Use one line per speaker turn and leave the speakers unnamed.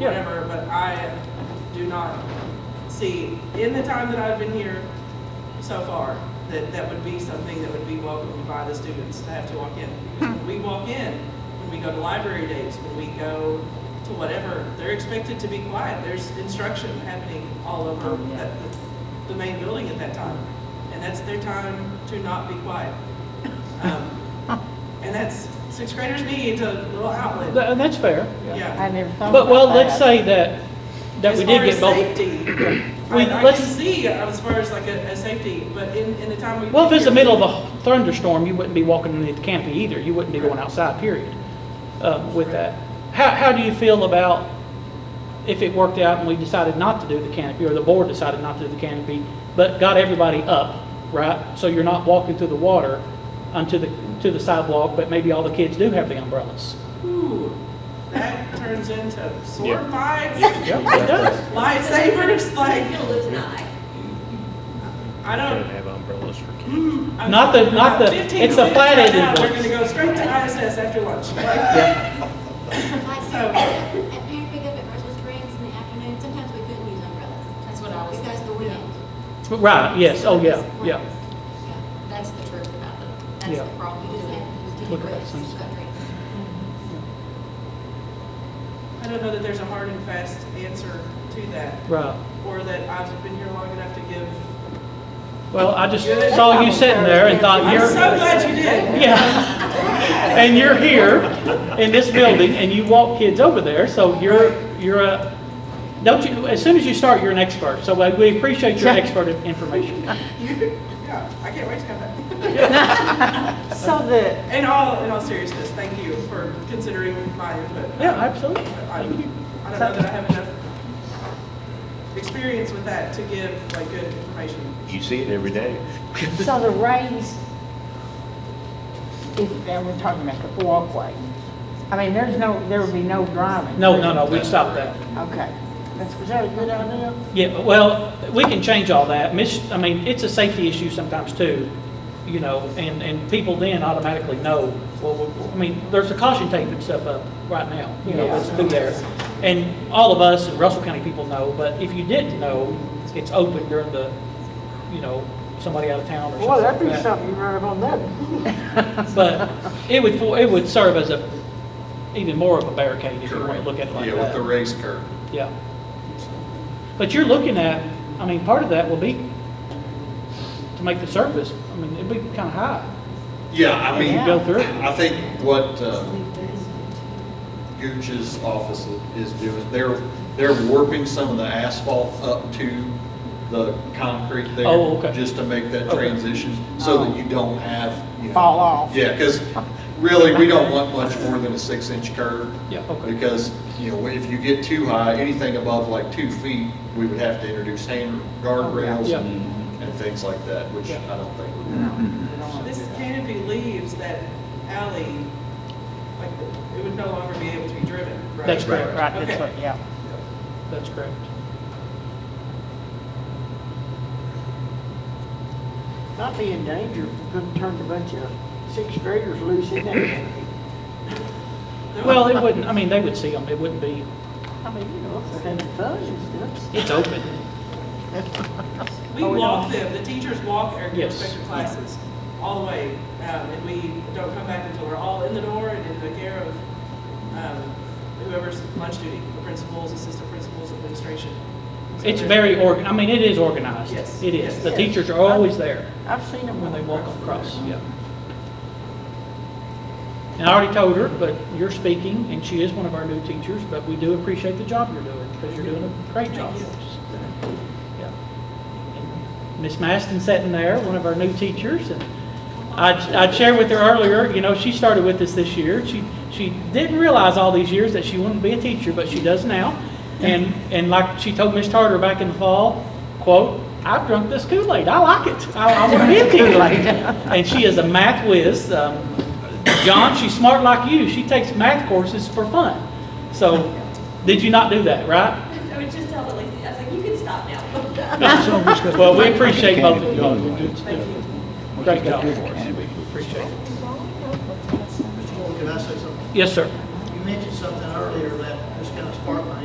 Yeah.
whatever, but I do not see, in the time that I've been here so far, that that would be something that would be welcomed by the students to have to walk in. Because when we walk in, when we go to library days, when we go to whatever, they're expected to be quiet. There's instruction happening all over that- the, the main building at that time. And that's their time to not be quiet. Um, and that's, sixth graders need a little outlet.
Th- And that's fair.
Yeah.
I never thought about
But, well,
that.
let's say that, that we did get both.
As far as safety,
We-
I, I
let's-
can see as far as like a, a safety, but in, in the time we.
Well, if it's the middle of a thunderstorm, you wouldn't be walking underneath the canopy either. You wouldn't be going outside, period, uh, with that. How, how do you feel about if it worked out and we decided not to do the canopy, or the board decided not to do the canopy, but got everybody up, right? So you're not walking through the water onto the, to the sidewalk, but maybe all the kids do have the umbrellas.
Ooh, that turns into sword
Yeah.
fights,
It does.
lightsabers, like,
You'll lose an eye.
I
Gotta
don't.
have umbrellas for kids.
mm, I'm
Not the-
talking
not
about
the-
15
it's a
minutes
flat
right
ended
now, We're
one.
gonna go straight to ISS after lunch. Like,
Like
So-
at at parent pickup at Crystal Springs in the afternoon, sometimes we couldn't use umbrellas
That's what I was
because the
thinking.
wind.
Right, yes, oh, yeah, yeah.
Yeah.
That's the truth about them. That's
Yeah.
the problem.
You just
with it.
have to
Look at that
use
sunset.
I don't know that there's a hard and fast answer to that,
Right.
or that I've been here long enough to give.
Well, I just saw you sitting there and thought,
I'm
you're.
so glad you did.
Yeah. And you're here in this building and you walk kids over there, so you're, you're a, don't you, as soon as you start, you're an expert. So we- we appreciate your expert information.
Yeah, I can't wait to come back.
So the,
In all, in all seriousness, thank you for considering my input.
Yeah, absolutely.
I I don't know that I have enough experience with that to give like good information.
You see it every day.
so the raised, if, and we're talking about the walkway. I mean, there's no, there would be no driving.
No, no, no, we stopped that.
Okay. That's, was that a good idea?
Yeah, well, we can change all that. Miss, I mean, it's a safety issue sometimes too, you know, and, and people then automatically know, well, we- I mean, there's a caution tape and stuff up right now, you know, that's through there. And all of us and Russell County people know, but if you didn't know, it's open during the, you know, somebody out of town or something
Well, that'd
like
be
that.
something you run up on that.
But it would, for- it would serve as a, even more of a barricade if you want to
Correct.
look at it like that.
Yeah, with the raised curb.
Yeah. But you're looking at, I mean, part of that will be to make the surface, I mean, it'd be kind of high.
Yeah, I mean,
You go through it.
I think what uh, Gooch's office is doing, they're, they're warping some of the asphalt up to the concrete there.
Oh, okay.
Just to make that
Okay. Oh.
transition, so that you don't have, you know.
Fall off.
Yeah, because really, we don't want much more than a six-inch curb.
Yeah, okay.
Because, you know, if you get too high, anything above like two feet, we would have to introduce hand guardrails
Yeah.
and and things like that, which
Yeah.
I don't think would
This canopy leaves that alley, like, it would no longer be able to be driven, right?
That's correct,
Right, that's
Okay.
what, yeah.
That's correct.
Might be in danger, if we're gonna turn a bunch of sixth graders loose in that. thing.
No,
Well, it wouldn't, I mean, they would see them, it wouldn't be,
I mean, you know, if they're having fun and stuff.
it's open.
We
Oh, yeah.
walk them, the teachers walk our
Yes.
respective classes all the way, um, and we don't come back until we're all in the door and in the care of, um, whoever's lunch duty, the principals, assistant principals, administration. So there's-
It's very organ, I mean, it is organized.
Yes.
It is, the
Yes.
teachers are always there
I've seen them
when they walk across, yeah. And I already told her, but you're speaking, and she is one of our new teachers, but we do appreciate the job you're doing, because you're doing a great job. Yeah. Miss Maston sitting there, one of our new teachers, and I'd, I'd shared with her earlier, you know, she started with us this year. She, she didn't realize all these years that she wanted to be a teacher, but she does now. And, and like she told Miss Tarter back in the fall, quote, "I've drunk this Kool-Aid. I like it. I, I want to be a teacher." And she is a math whiz. Um, John, she's smart like you. She takes math courses for fun. So, did you not do that, right?
I would just tell Lacey, I was like, you can stop now.
Well, we appreciate both of you. Great job for us. Appreciate it.
Mr. Moore, can I say something?
Yes, sir.
You mentioned something earlier that just kind of sparked my